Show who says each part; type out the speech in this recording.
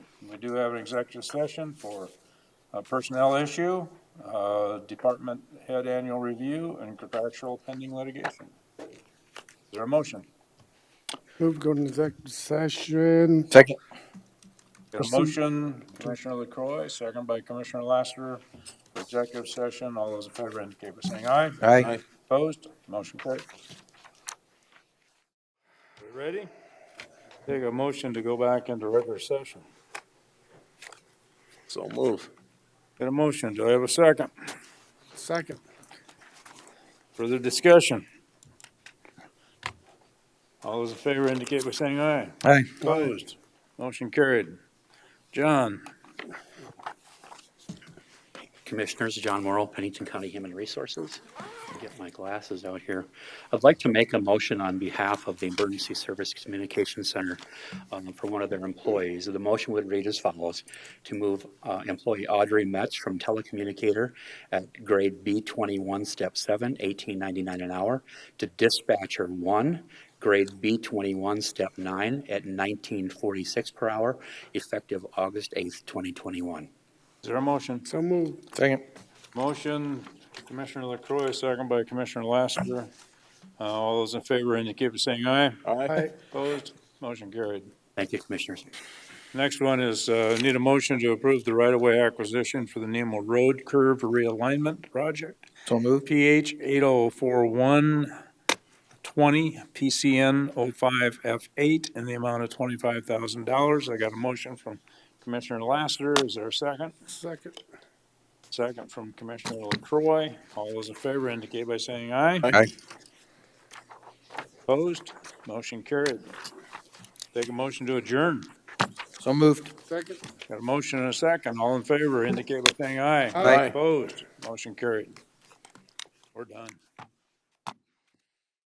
Speaker 1: we do have an executive session for a personnel issue, uh, department head annual review, and contractual pending litigation. Is there a motion?
Speaker 2: Move go to executive session.
Speaker 3: Second.
Speaker 1: Got a motion, Commissioner LaCroy, second by Commissioner Lassiter, for executive session. All those in favor indicate by saying aye.
Speaker 3: Aye.
Speaker 1: Opposed? Motion carried. We ready? Take a motion to go back into regular session.
Speaker 3: So move.
Speaker 1: Get a motion. Do I have a second?
Speaker 2: Second.
Speaker 1: Further discussion? All those in favor indicate by saying aye.
Speaker 3: Aye.
Speaker 1: Opposed? Motion carried. John,
Speaker 4: Commissioners, John Morrow, Pennington County Human Resources. Get my glasses out here. I'd like to make a motion on behalf of the Emergency Service Communication Center um, for one of their employees. The motion would read as follows, to move uh, employee Audrey Metz from telecommunicator at grade B21, step 7, 1899 an hour, to dispatcher 1, grade B21, step 9, at 1946 per hour, effective August 8th, 2021.
Speaker 1: is there a motion?
Speaker 2: So move.
Speaker 3: Second.
Speaker 1: Motion, Commissioner LaCroy, second by Commissioner Lassiter. Uh, All those in favor indicate by saying aye.
Speaker 3: Aye.
Speaker 1: Opposed? Motion carried.
Speaker 4: Thank you, Commissioners.
Speaker 1: Next one is, uh, need a motion to approve the right-of-way acquisition for the Nemo Road Curve Realignment Project.
Speaker 3: So moved.
Speaker 1: PH 804120, PCN 05F8, in the amount of $25,000. I got a motion from Commissioner Lassiter. Is there a second?
Speaker 2: Second.
Speaker 1: Second from Commissioner LaCroy. All those in favor indicate by saying aye.
Speaker 3: Aye.
Speaker 1: Opposed? Motion carried. Take a motion to adjourn.
Speaker 3: So moved.
Speaker 2: Second.
Speaker 1: Got a motion and a second. All in favor indicate by saying aye.
Speaker 2: Aye.
Speaker 1: Opposed? Motion carried. We're done.